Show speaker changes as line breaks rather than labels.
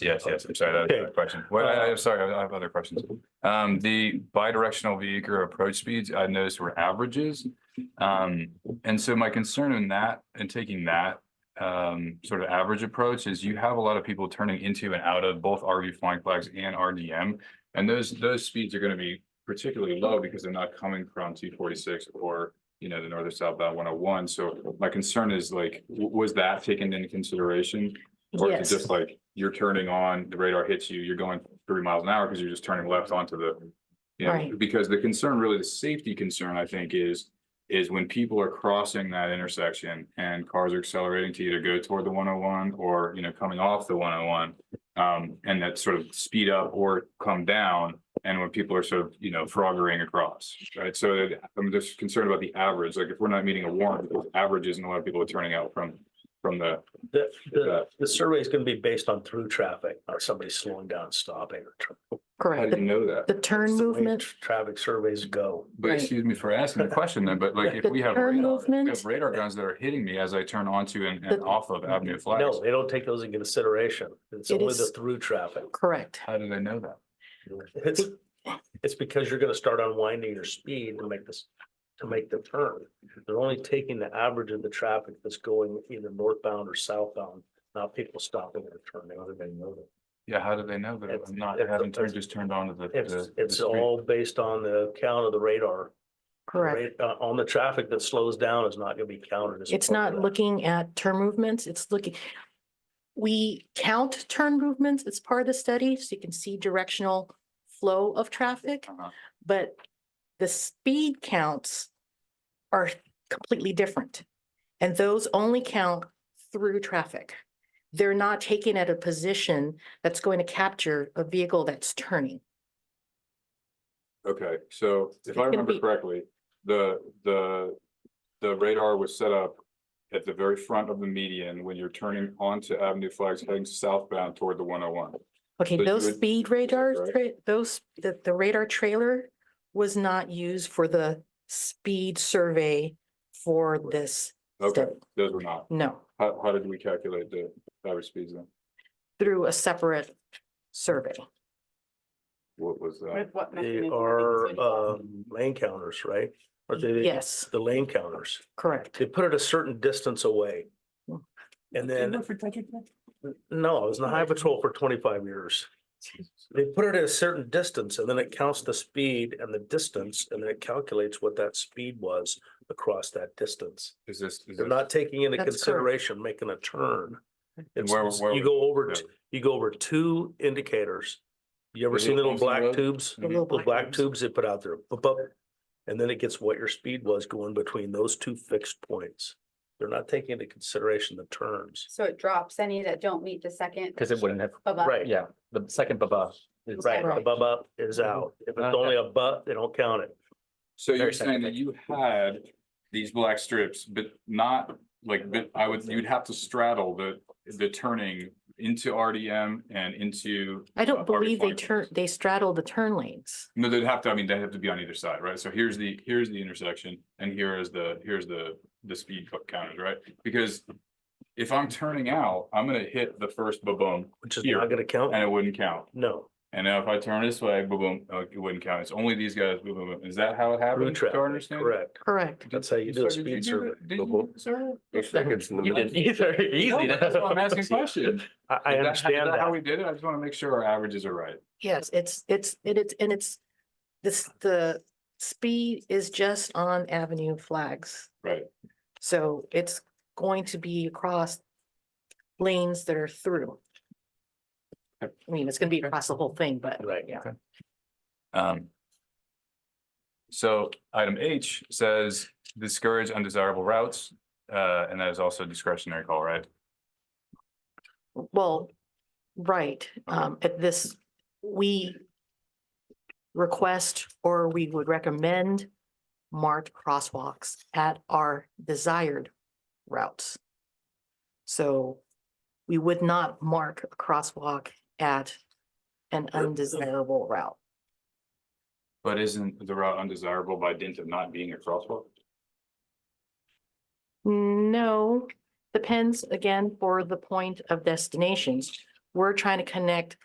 Yes, yes, I'm sorry, that was
Okay.
a question. Well, I, I'm sorry, I have other questions. Um, the bidirectional vehicle approach speeds, I noticed were averages. Um, and so my concern in that, in taking that, um, sort of average approach is you have a lot of people turning into and out of both RV flying flags and RDM. And those, those speeds are gonna be particularly low because they're not coming from T forty-six or, you know, the north or southbound one oh one. So my concern is like, w- was that taken into consideration? Or is
Yes.
it just like you're turning on, the radar hits you, you're going three miles an hour because you're just turning left onto the. You know,
Right.
because the concern, really the safety concern, I think, is, is when people are crossing that intersection and cars are accelerating to either go toward the one oh one or, you know, coming off the one oh one. Um, and that sort of speed up or come down and when people are sort of, you know, froggering across, right? So that- I'm just concerned about the average, like if we're not meeting a warrant, because averages and a lot of people are turning out from, from the
The,
Yeah.
the, the survey is gonna be based on through traffic, not somebody slowing down, stopping. or tr-
How
Correct.
do you
The-
know that?
The turn
It's the way
movement,
tr- Traffic surveys go.
But
Right.
excuse me for asking the question then, but like if
The
we have
turn
radar, if we
movement?
have radar guns that are hitting me as I turn onto and, and
The-
off of Avenue Flags,
No, they don't take those into consideration. It's
It
only the
is-
through traffic.
correct.
how do they know that?
It's, it's because you're gonna start unwinding your speed to make this, to make the turn. They're only taking the average of the traffic that's going either northbound or southbound, not people stopping or turning, other than know that.
Yeah, how do they know that
It's-
I'm not,
it's-
having turned,
it's-
just turned onto the?
It's,
the- the
it's
street?
all based on the count of the radar. The
Correct.
ra- uh, On the traffic that slows down is not gonna be counted. as
It's
part of that.
not looking at turn movements, it's looking. We count turn movements, it's part of the study, so you can see directional flow of traffic,
Uh-huh.
but the speed counts are completely different. And those only count through traffic. They're not taken at a position that's going to capture a vehicle that's turning.
Okay, so if I
gonna
remember
be-
correctly, the, the, the radar was set up at the very front of the median when you're turning onto Avenue Flags heading southbound toward the one oh one.
Okay,
So you
those
would-
speed radar,
right?
tra- those, the, the radar trailer was not used for the speed survey for this
Okay,
study.
those were not.
No,
How, how did we calculate the average speeds then?
through a separate survey.
What was that?
With what
They
mechanism?
are
Is it-
um, lane counters, right? Or they,
Yes,
the lane counters.
correct.
They put it a certain distance away.
Hmm.
And then, no, I was in the high patrol for twenty-five years. They put it at a certain distance and then it counts the speed and the distance and then it calculates what that speed was across that distance.
Is this? is
They're
this-
not taking into
That's correct.
consideration making a turn. It's,
where-
it's-
where
you
was-
go over,
yeah.
t- you go over two indicators. You ever
Is it
seen little
Thompson
black
Road?
tubes?
The little
The black
ones.
tubes they put out there, bup, bup, and then it gets what your speed was going between those two fixed points. They're not taking into consideration the turns.
So it drops any that don't meet the second.
Because it wouldn't have,
above?
Right.
yeah, the second baba. is-
Right.
The bup up is
Mm-hmm.
out. If
Uh,
it's only a but, they don't count it.
So you're
Very
saying that
scientific.
you had these black strips, but not like, but I would, you'd have to straddle the, the turning into RDM and into.
I
uh,
don't believe they
RB20.
turn, they straddle the turn lanes.
No, they'd have to, I mean, they'd have to be on either side, right? So here's the, here's the intersection and here is the, here's the, the speed co- counters, right? Because if I'm turning out, I'm gonna hit the first ba-boom
Which is
Here.
not gonna count.
and it wouldn't count.
No,
And now if I turn this way, boom, boom, uh, it wouldn't count. It's only these guys, boom, boom, boom. Is that how it
through
happened? to our
traffic,
understanding?
correct.
Correct.
That's how you do a
So did
speed
do
survey.
it? Did you do it, sir?
You didn't either, easy.
No, but That's why I'm asking questions.
I, I understand
How
that.
we did it? I just want to make sure our averages are right.
Yes, it's, it's, and it's, and it's, this, the speed is just on Avenue Flags.
Right.
So it's going to be across lanes that are through. I
Yep.
mean, it's gonna be across the whole thing, but
Right.
yeah.
Um. So item H says discourage undesirable routes, uh, and that is also discretionary call, right?
Well, right, um, at this, we request or we would recommend marked crosswalks at our desired routes. So we would not mark a crosswalk at an undesirable route.
But isn't the route undesirable by dint of not being a crosswalk?
No, depends again for the point of destinations. we're trying to connect